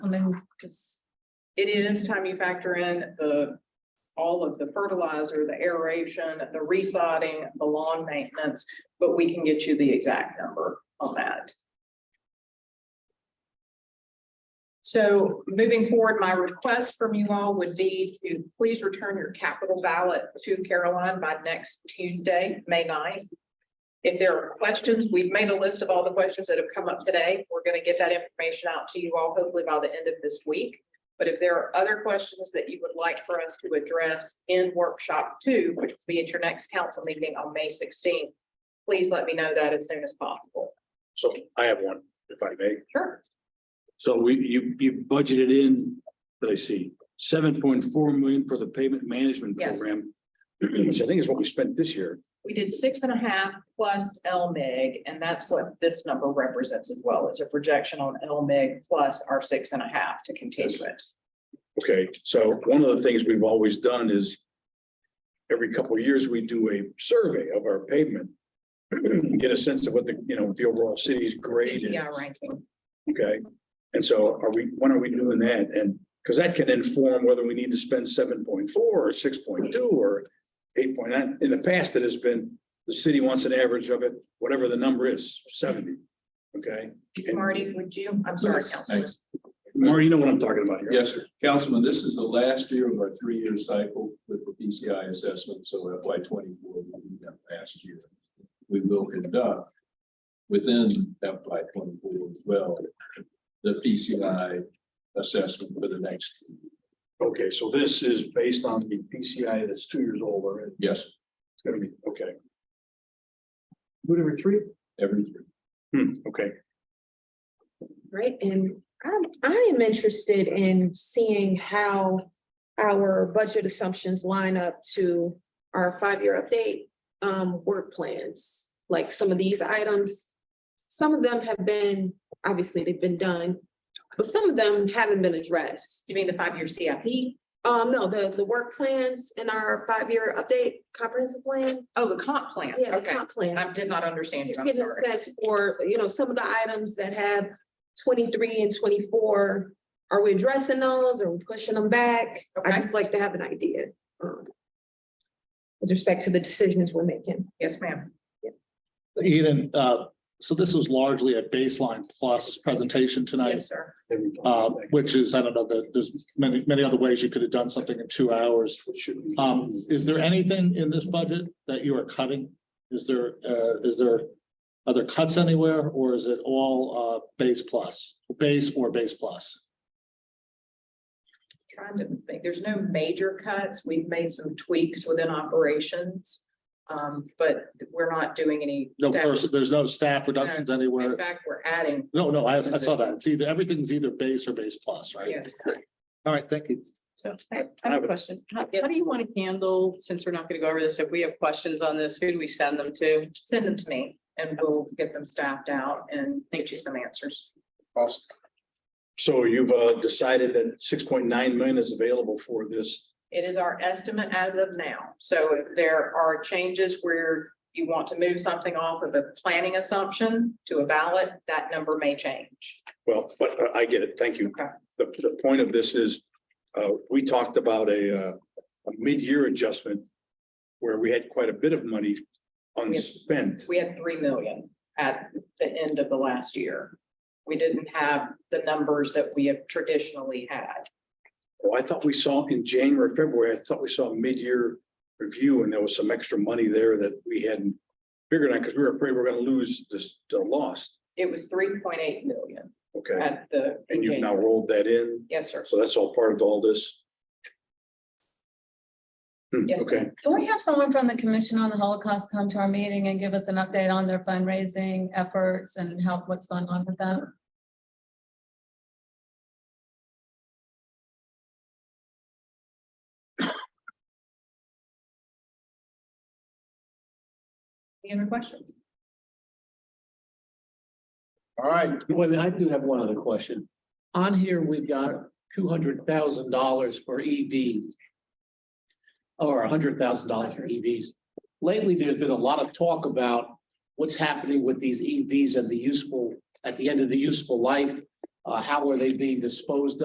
and just, It is time you factor in the, all of the fertilizer, the aeration, the resodding, the lawn maintenance, but we can get you the exact number on that. So moving forward, my request from you all would be to please return your capital ballot to Caroline by next Tuesday, May 9th. If there are questions, we've made a list of all the questions that have come up today. We're going to get that information out to you all hopefully by the end of this week. But if there are other questions that you would like for us to address in workshop two, which will be at your next council meeting on May sixteenth, please let me know that as soon as possible. So I have one, if I may. Sure. So we, you, you budgeted in, let I see, seven point four million for the pavement management Yes. program. Which I think is what we spent this year. We did six and a half plus LMIG, and that's what this number represents as well. It's a projection on LMIG plus our six and a half to continue it. Okay, so one of the things we've always done is. Every couple of years, we do a survey of our pavement. Get a sense of what the, you know, the overall city's grade is. PCI ranking. Okay, and so are we, when are we doing that? And, because that can inform whether we need to spend seven point four or six point two or eight point nine. In the past, it has been, the city wants an average of it, whatever the number is, seventy. Okay, Marty, would you, I'm sorry, Yes, Councilman. thanks. Marty, you know what I'm talking about here. Yes, sir. Councilman, this is the last year of our three-year cycle with the PCI assessment, so FY twenty-four will be that last year. We will conduct within FY twenty-four as well, the PCI assessment for the next, Okay, so this is based on the PCI that's two years old already. yes, It's gonna be, okay, Whatever, three? every three. Hmm, okay. Right, and I'm, I am interested in seeing how our budget assumptions line up to our five-year update, um, work plans, like some of these items. Some of them have been, obviously, they've been done, but some of them haven't been addressed. Do you mean the five-year CIP? Um, no, the, the work plans in our five-year update comprehensive plan, Oh, the comp plan. yeah, the Okay, comp plan. I did not understand you. Just I'm give a sorry. sense for, you know, some of the items that have twenty-three and twenty-four. Are we addressing those? Are we pushing them back? I Okay. just like to have an idea. um, With respect to the decisions we're making. Yes, ma'am. Eden, uh, so this was largely a baseline plus presentation tonight, Yes, sir. Every time. uh, which is, I don't know, there- there's many, many other ways you could have done something in two hours. What should we- Um, is there anything in this budget that you are cutting? Is there, uh, is there, are there cuts anywhere or is it all, uh, base plus, base or base plus? Trying to think, there's no major cuts. We've made some tweaks within operations. Um, but we're not doing any. No, step- there's, there's no staff reductions In anywhere. fact, we're adding, No, no, I, I saw that. It's either, everything's either base or base plus, right? yeah. All right, thank you. So I I have a question. How, how do you want to handle, since we're not going to go over this, if we have questions on this, who do we send them to? Send them to me and we'll get them staffed out and get you some answers. Awesome. So you've uh, decided that six point nine million is available for this It is our estimate as of now. So if there are changes where you want to move something off of a planning assumption to a ballot, that number may change. Well, but uh, I get it. Thank you. Okay. The, the point of this is, uh, we talked about a, uh, a mid-year adjustment where we had quite a bit of money unspent. We had three million at the end of the last year. We didn't have the numbers that we have traditionally had. Well, I thought we saw in January, February, I thought we saw a mid-year review and there was some extra money there that we hadn't figured out because we were afraid we we're gonna lose this, the lost. It was three point eight million Okay, at the. and you've now rolled that in. Yes, sir. So that's all part of all this. Hmm, Yes, okay, Can we have someone from the Commission on the Holocaust come to our meeting and give us an update on their fundraising efforts and how, what's going on with that? Any other questions? All right, wait a minute, I do have one other question. On here, we've got two hundred thousand dollars for EVs. Or hundred thousand dollars for EVs. Lately, there's been a lot of talk about what's happening with E these EVs and the useful, at the end of the useful life. Uh, how are they being disposed